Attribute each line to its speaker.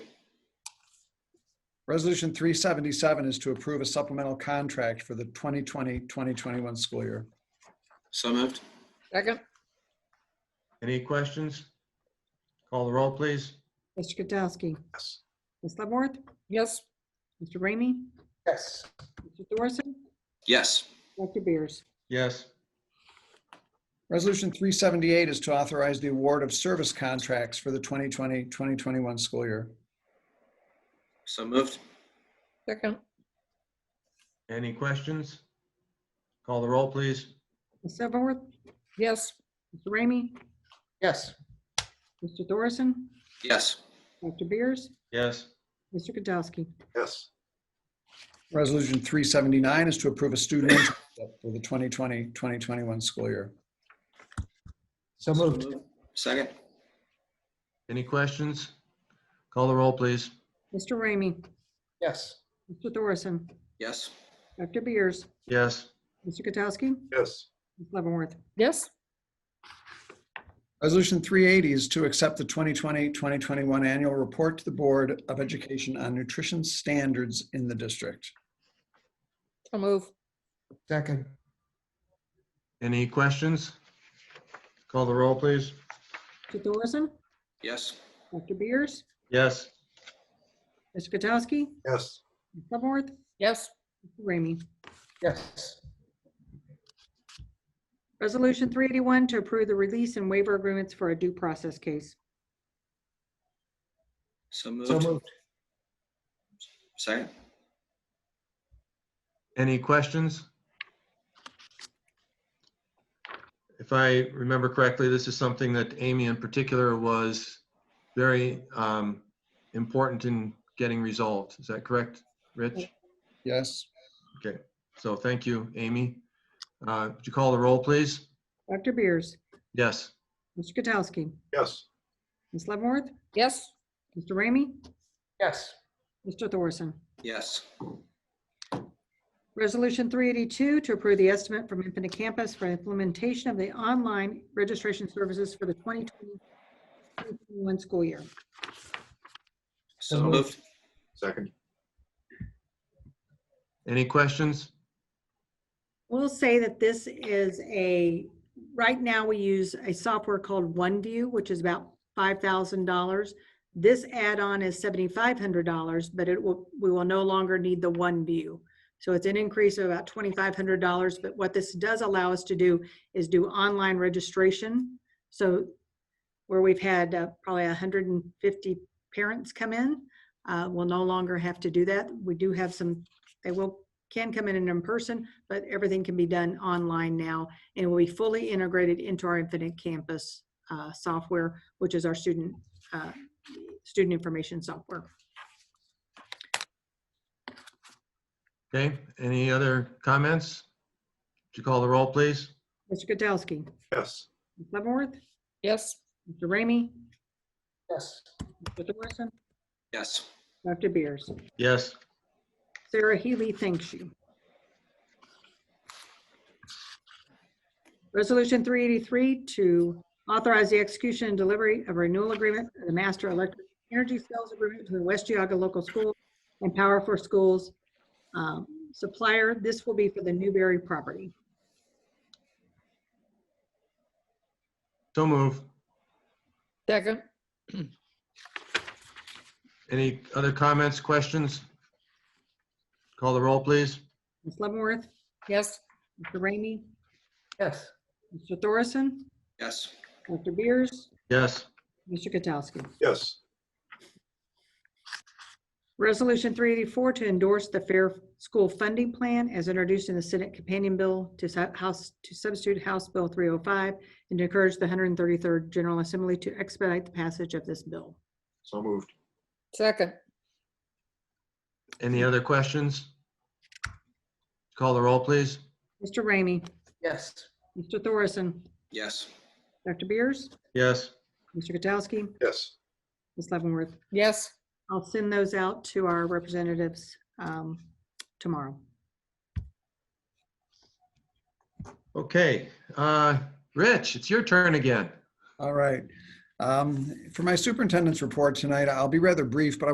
Speaker 1: Resolution 377 is to approve a supplemental contract for the 2020-2021 school year.
Speaker 2: So moved.
Speaker 3: Second.
Speaker 4: Any questions? Call the roll, please.
Speaker 5: Mr. Katsowski.
Speaker 1: Yes.
Speaker 5: Ms. Leavenworth.
Speaker 3: Yes.
Speaker 5: Mr. Ramey.
Speaker 1: Yes.
Speaker 5: Mr. Thorson.
Speaker 2: Yes.
Speaker 5: Dr. Beers.
Speaker 4: Yes.
Speaker 1: Resolution 378 is to authorize the award of service contracts for the 2020-2021 school year.
Speaker 2: So moved.
Speaker 3: Second.
Speaker 4: Any questions? Call the roll, please.
Speaker 5: Ms. Leavenworth.
Speaker 3: Yes.
Speaker 5: Mr. Ramey.
Speaker 1: Yes.
Speaker 5: Mr. Thorson.
Speaker 2: Yes.
Speaker 5: Dr. Beers.
Speaker 4: Yes.
Speaker 5: Mr. Katsowski.
Speaker 6: yes,
Speaker 1: Resolution 379 is to approve a student internship for the 2020-2021 school year.
Speaker 7: So moved.
Speaker 2: Second.
Speaker 4: Any questions? Call the roll, please.
Speaker 5: Mr. Ramey.
Speaker 7: Yes.
Speaker 5: Mr. Thorson.
Speaker 2: Yes.
Speaker 5: Dr. Beers.
Speaker 4: Yes.
Speaker 5: Mr. Katsowski.
Speaker 6: yes,
Speaker 5: Ms. Leavenworth.
Speaker 3: Yes.
Speaker 1: Resolution 380 is to accept the 2020-2021 annual report to the Board of Education on nutrition standards in the district.
Speaker 3: So move.
Speaker 7: Second.
Speaker 4: Any questions? Call the roll, please.
Speaker 5: Mr. Thorson.
Speaker 2: Yes.
Speaker 5: Dr. Beers.
Speaker 4: Yes.
Speaker 5: Mr. Katsowski.
Speaker 6: yes,
Speaker 5: Ms. Leavenworth.
Speaker 3: Yes.
Speaker 5: Mr. Ramey.
Speaker 7: Yes.
Speaker 5: Resolution 381 to approve the release and waiver agreements for a due process case.
Speaker 2: So
Speaker 7: So
Speaker 2: moved.
Speaker 7: moved.
Speaker 2: Second.
Speaker 4: Any questions? If I remember correctly, this is something that Amy in particular was very um, important in getting resolved. Is that correct, Rich?
Speaker 1: Yes.
Speaker 4: So thank you, Amy. Uh, Would you call the roll, please?
Speaker 5: Dr. Beers.
Speaker 4: Yes.
Speaker 5: Mr. Katsowski.
Speaker 6: yes,
Speaker 5: Ms. Leavenworth.
Speaker 3: Yes.
Speaker 5: Mr. Ramey.
Speaker 7: Yes.
Speaker 5: Mr. Thorson.
Speaker 2: Yes.
Speaker 5: Resolution 382 to approve the estimate from Infinite Campus for implementation of the online registration services for the 2020-2021 school year.
Speaker 2: So
Speaker 7: So moved.
Speaker 2: moved.
Speaker 6: second,
Speaker 4: Any questions?
Speaker 5: We'll say that this is a, right now we use a software called OneView, which is about $5,000. This add-on is $7,500, but it will, we will no longer need the OneView. So it's an increase of about $2,500, but what this does allow us to do is do online registration. So where we've had uh, probably 150 parents come in, uh, we'll no longer have to do that. We do have some, they will, can come in and in person, but everything can be done online now and will be fully integrated into our Infinite Campus uh, software, which is our student, uh, student information software.
Speaker 4: Okay, any other comments? Would you call the roll, please?
Speaker 5: Mr. Katsowski.
Speaker 6: yes,
Speaker 5: Ms. Leavenworth.
Speaker 3: Yes.
Speaker 5: Mr. Ramey.
Speaker 7: Yes.
Speaker 5: Mr. Thorson.
Speaker 2: Yes.
Speaker 5: Dr. Beers.
Speaker 4: Yes.
Speaker 5: Sarah Healy thanks you. Resolution 383 to authorize the execution and delivery of a renewal agreement for the master electric energy sales agreement between West Geogga Local School and Power for Schools um, supplier. This will be for the Newberry property.
Speaker 4: So move.
Speaker 3: Second.
Speaker 4: Any other comments, questions? Call the roll, please.
Speaker 5: Ms. Leavenworth,
Speaker 3: Yes.
Speaker 5: Mr. Ramey,
Speaker 7: Yes.
Speaker 5: Mr. Thorson,
Speaker 2: Yes.
Speaker 5: Dr. Beers,
Speaker 4: Yes.
Speaker 5: Mr. Katsowski.
Speaker 6: yes,
Speaker 5: Resolution 384 to endorse the Fair School Funding Plan as introduced in the Senate Companion Bill to su- House, to substitute House Bill 305 and to encourage the 133rd General Assembly to expedite the passage of this bill.
Speaker 6: so moved,
Speaker 3: Second.
Speaker 4: Any other questions? Call the roll, please.
Speaker 5: Mr. Ramey?
Speaker 7: Yes.
Speaker 5: Mr. Thorson?
Speaker 2: Yes.
Speaker 5: Dr. Beers?
Speaker 4: Yes.
Speaker 5: Mr. Katsowski?
Speaker 6: yes,
Speaker 5: Ms. Leavenworth?
Speaker 3: Yes.
Speaker 5: I'll send those out to our representatives um, tomorrow.
Speaker 4: Okay, uh, Rich, it's your turn again.
Speaker 1: All right. Um, For my superintendent's report tonight, I'll be rather brief, but I